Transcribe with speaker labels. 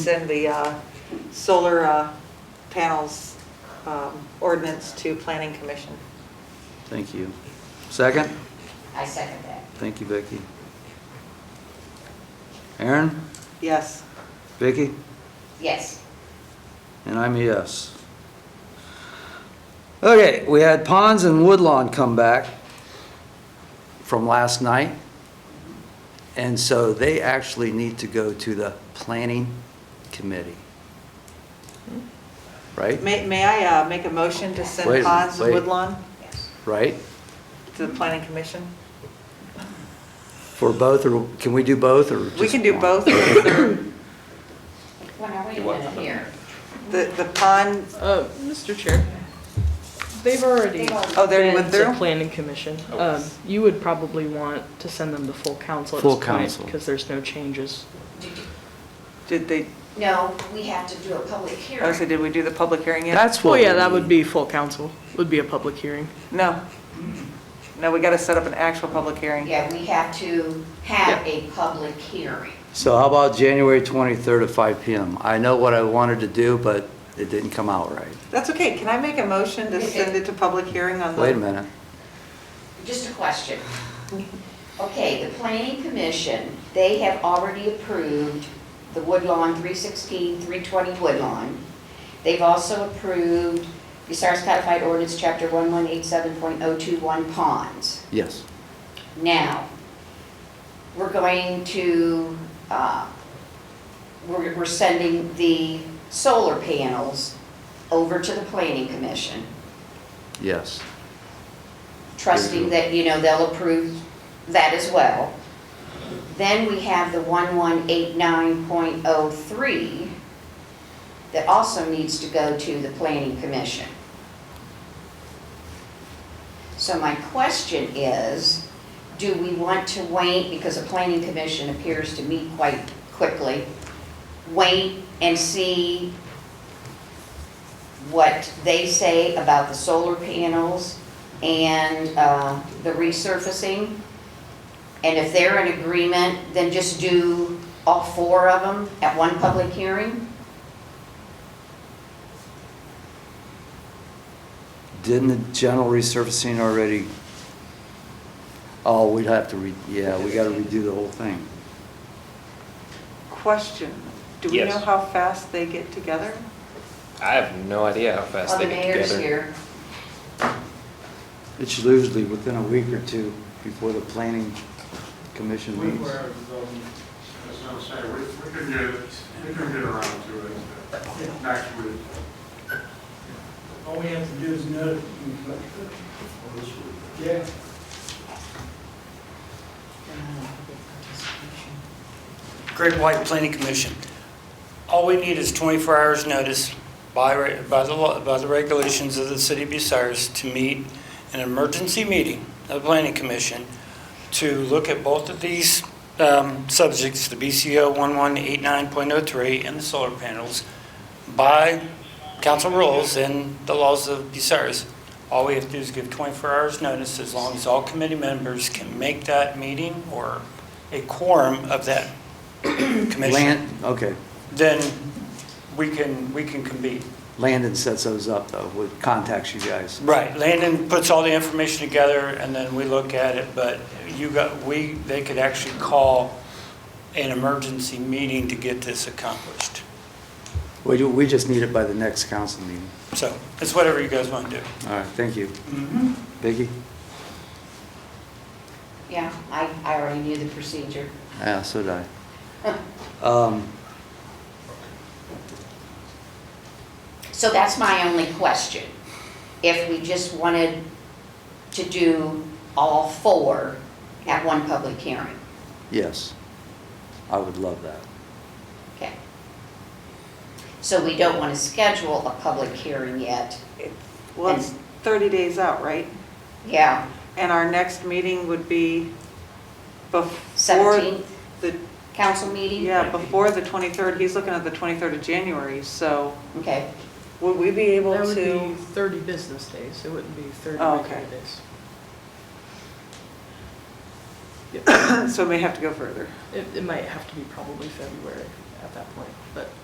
Speaker 1: send the uh, solar uh, panels um, ordinance to planning commission.
Speaker 2: Thank you. Second?
Speaker 3: I second that.
Speaker 2: Thank you, Vicki. Aaron?
Speaker 1: Yes.
Speaker 2: Vicki?
Speaker 3: Yes,
Speaker 2: And I'm a yes. Okay, we had Ponds and Woodlawn come back from last night. And so they actually need to go to the planning committee. Right?
Speaker 1: May, may I uh, make a motion to
Speaker 2: Wait,
Speaker 1: send Ponds and
Speaker 2: wait.
Speaker 1: Woodlawn
Speaker 3: yes.
Speaker 2: Right?
Speaker 1: to the planning commission?
Speaker 2: For both, or can we do both, or
Speaker 1: We
Speaker 2: just
Speaker 1: can do
Speaker 2: one?
Speaker 1: both. The,
Speaker 3: Well, now wait a minute here.
Speaker 1: the pond,
Speaker 4: Uh, Mr. Chair, they've already
Speaker 3: They've already-
Speaker 1: Oh, they already
Speaker 4: been
Speaker 1: went
Speaker 4: to
Speaker 1: through?
Speaker 4: planning commission.
Speaker 2: Oh.
Speaker 4: Um, You would probably want to send them the full council at
Speaker 2: Full
Speaker 4: this
Speaker 2: council.
Speaker 4: point, because there's no changes.
Speaker 1: did they,
Speaker 3: No, we have to do a public hearing.
Speaker 1: oh, so did we do the public hearing yet?
Speaker 2: That's what.
Speaker 4: Well, yeah,
Speaker 2: we
Speaker 4: that would
Speaker 2: need.
Speaker 4: be full council, would be a public hearing.
Speaker 1: No. No, we got to set up an actual public hearing.
Speaker 3: Yeah, we have to have a public hearing.
Speaker 2: So how about January 23rd at 5 PM? I know what I wanted to do, but it didn't come out right.
Speaker 1: That's okay. Can I make a motion to send it to public hearing
Speaker 5: Uh-huh.
Speaker 1: on the?
Speaker 2: Wait a minute.
Speaker 3: Just a question. Okay, the planning commission, they have already approved the Woodlawn 316, 320 Woodlawn. They've also approved Bucyrus Codified Ordinance, Chapter 1187.021 ponds.
Speaker 2: Yes.
Speaker 3: Now, we're going to, uh, we're we're sending the solar panels over to the planning commission,
Speaker 2: Yes.
Speaker 3: trusting that, you know, they'll approve that as well. Then we have the 1189.03 that also needs to go to the planning commission. So my question is, do we want to wait, because the planning commission appears to meet quite quickly, wait and see what they say about the solar panels and uh, the resurfacing? And if they're in agreement, then just do all four of them at one public hearing?
Speaker 2: Didn't the general resurfacing already? Oh, we'd have to re, yeah, we gotta redo the whole thing.
Speaker 1: Question. Do we
Speaker 6: Yes.
Speaker 1: know how fast they get together?
Speaker 6: I have no idea how fast
Speaker 3: Well,
Speaker 6: they
Speaker 3: the
Speaker 6: get
Speaker 3: mayor's
Speaker 6: together.
Speaker 3: here.
Speaker 2: It's usually within a week or two before the planning commission
Speaker 5: We
Speaker 2: meets.
Speaker 5: were, um, as I was saying, we, we could get, we could get around to it uh, next week.
Speaker 7: All we have to do is notify.
Speaker 5: or this week.
Speaker 7: Yeah.
Speaker 8: Great White Planning Commission. All we need is 24 hours' notice by, re- by the, law- by the regulations of the city of Bucyrus to meet an emergency meeting of the planning commission to look at both of these um, subjects, the BCO 1189.03 and the solar panels, by council rules and the laws of Bucyrus. All we have to do is give 24 hours' notice, as long as all committee members can make that meeting or a quorum of that commission,
Speaker 2: Land, okay.
Speaker 8: then we can, we can convene.
Speaker 2: Landon sets those up though, would contacts you guys.
Speaker 8: Right, Landon puts all the information together, and then we look at it, but you got, we, they could actually call an emergency meeting to get this accomplished.
Speaker 2: We, do- we just need it by the next council meeting.
Speaker 8: So, it's whatever you guys want to do.
Speaker 2: All right, thank you. Vicky?
Speaker 3: Yeah, I, I already knew the procedure.
Speaker 2: Yeah, Ah, so did I. Um,
Speaker 3: So that's my only question. If we just wanted to do all four at one public hearing.
Speaker 2: Yes, I would love that.
Speaker 3: Okay. So we don't want to schedule a public hearing yet.
Speaker 1: Well, it's 30 days out, right?
Speaker 3: Yeah,
Speaker 1: And our next meeting would be before
Speaker 3: 17th
Speaker 1: the,
Speaker 3: council meeting?
Speaker 1: yeah, before the 23rd. He's looking at the 23rd of January, so
Speaker 3: Okay,
Speaker 1: would we be able
Speaker 4: That would be
Speaker 1: to?
Speaker 4: 30 business days, it wouldn't be 30
Speaker 1: Oh, okay.
Speaker 4: regular days.
Speaker 1: So we may have to go further.
Speaker 4: It it might have to be probably February at that point, but.